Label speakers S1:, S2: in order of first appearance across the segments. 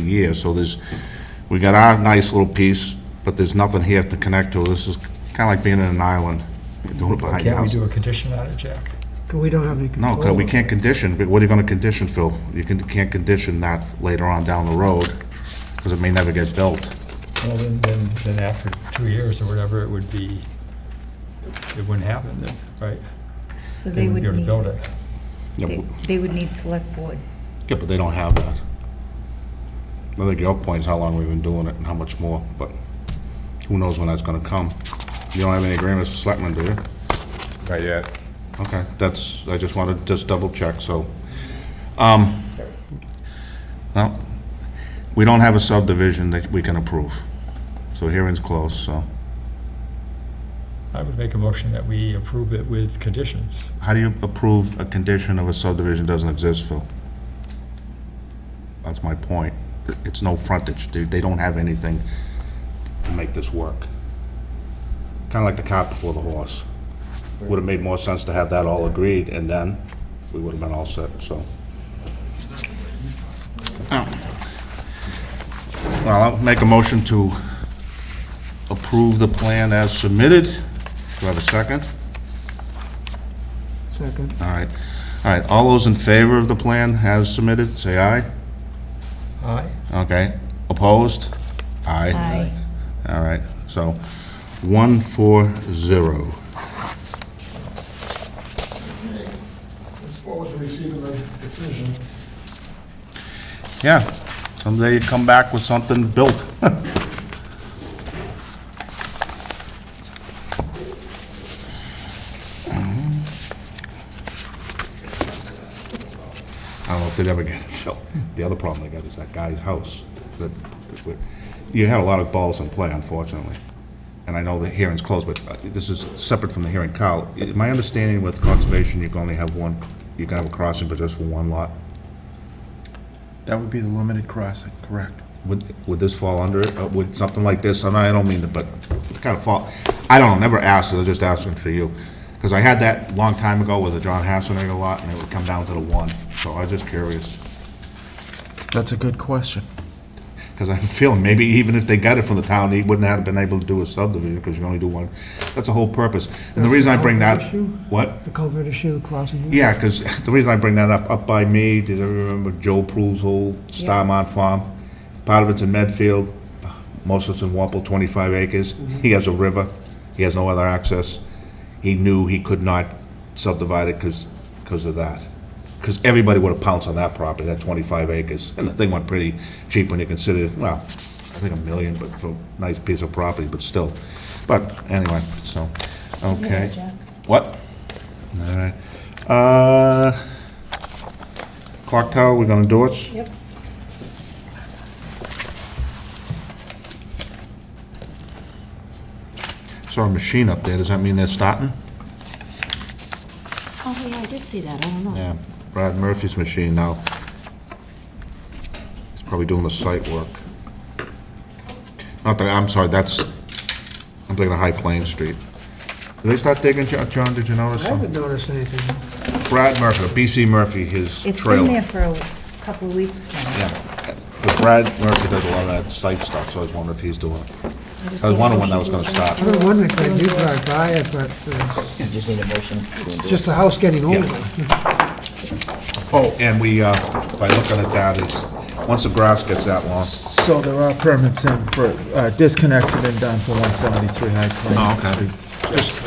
S1: year, so there's, we got our nice little piece, but there's nothing here to connect to. This is kind of like being in an island, doing it behind your
S2: Can't we
S1: house.
S2: do a condition on it, Jack?
S3: 'Cause we don't have any
S1: No,
S3: control.
S1: 'cause we
S3: over it.
S1: can't condition, but what are you gonna condition, Phil? You can, can't condition that later on down the road, because it may never get built.
S2: Well, then, then, then after two years or whatever, it would be, it wouldn't happen then, right?
S4: So they would
S2: They wouldn't
S4: need,
S2: be able to build it.
S4: they- they would need select board.
S1: Yeah, but they don't have that. I think your point is how long we've been doing it and how much more, but who knows when that's gonna come. You don't have any agreements with selectmen, do you?
S5: Not yet.
S1: Okay, that's, I just wanted to just double check, so. Um, well, we don't have a subdivision that we can approve, so hearing's closed, so.
S2: I would make a motion that we approve it with conditions.
S1: How do you approve a condition of a subdivision doesn't exist, Phil? That's my point. It's no frontage. They, they don't have anything to make this work. Kind of like the cart before the horse. Would have made more sense to have that all agreed, and then we would have been all set, so. Oh. Well, I'll make a motion to approve the plan as submitted. Do I have a second?
S3: Second.
S1: All right, all right, all those in favor of the plan as submitted, say aye.
S2: Aye?
S1: Okay, opposed? Aye.
S4: Aye.
S1: All right, so, one, four, zero.
S6: forward to receiving the decision.
S1: Yeah, someday you come back with something built. I don't know if they'd ever get it, Phil. The other problem they got is that guy's house. that- You had a lot of balls in play, unfortunately. And I know the hearing's closed, but uh, this is separate from the hearing. Kyle, i- my understanding with conservation, you can only have one, you can have a crossing, but just for one lot.
S5: That would be the limited crossing, correct.
S1: Would, would this fall under it? Uh, Would something like this, and I don't mean to, but it kind of fall, I don't know, never asked, I was just asking for you. Because I had that long time ago with the John Hasselner lot, and it would come down to the one, so I was just curious.
S5: That's a good question.
S1: Because I have a feeling, maybe even if they got it from the town, they wouldn't have been able to do a subdivision, because you only do one. That's the whole purpose. And the
S3: That's
S1: reason I
S3: the
S1: bring that,
S3: issue?
S1: what?
S3: The culvert issue, crossing.
S1: Yeah, because the reason I bring that up, up by me, does everyone remember Joe Prue's old Starmont farm? Part of it's in Medfield, most of it's in Wampel, 25 acres. He has a river, he has no other access. He knew he could not subdivide it because, because of that. Because everybody would have pounced on that property, that 25 acres. And the thing went pretty cheap when you consider, well, I think a million, but for a nice piece of property, but still. But anyway, so, okay.
S4: Jack.
S1: What? All right. Uh, Clock tower, we're gonna do it?
S4: Yep.
S1: Saw a machine up there, does that mean they're starting?
S4: Oh, yeah, I did see that, I don't know.
S1: Yeah, Brad Murphy's machine now. He's probably doing the site work. Not that, I'm sorry, that's, I'm thinking of High Plain Street. Did they start digging, Jo- John, did you notice?
S3: I haven't noticed anything.
S1: Brad Murphy, BC Murphy, his
S4: It's
S1: trailer.
S4: been there for a couple of weeks now.
S1: Yeah, but Brad Murphy does a lot of that site stuff, so I was wondering if he's doing it.
S4: just
S1: I was
S4: need a
S1: wondering when that was
S4: motion
S1: gonna
S4: to
S1: start.
S3: I've been wondering, 'cause I do drive by it, but it's
S7: You just need a motion to endorse.
S3: just the house getting older.
S1: Oh, and we, uh, by looking at that is, once the grass gets that long.
S5: So there are permits in for, uh, disconnects have been done for 173 High Plain. Street.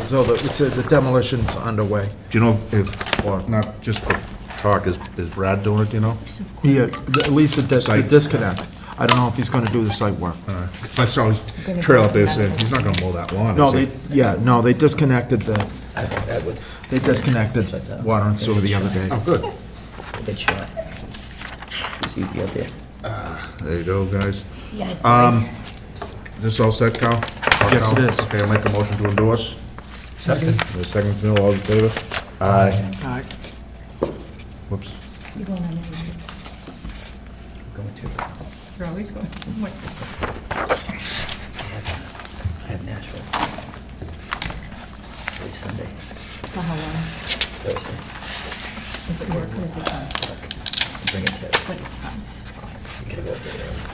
S5: So the, it's, a- the demolition's underway.
S1: Do you know if, or not just for talk, is, is Brad doing it, do you know?
S5: Yeah, at least the uh, dis- the
S1: Site.
S5: disconnect. I don't know if he's gonna do the site work.
S1: I saw his trail up there saying, he's not gonna mow that lawn.
S5: No,
S1: is he?"
S5: they, yeah, no, they disconnected the, they disconnected water and sewer the other day.
S1: Oh, good.
S7: Take a shot. See if you get there.
S1: There you go, guys.
S4: Yeah.
S1: Um, is this all set, Cal?
S5: Yes, it is.
S1: Okay, I'll make a motion to endorse.
S2: Second.
S1: The second, Phil, all in favor? Aye.
S3: All right.
S1: Whoops.
S4: You going on any-
S7: Going to, I
S4: You're always going somewhere.
S7: uh, have Nashville. Every Sunday,
S4: For how long?
S7: Thursday,
S4: Is it work or is it not?
S7: bring it to,
S4: But it's fun.
S7: you can go up there.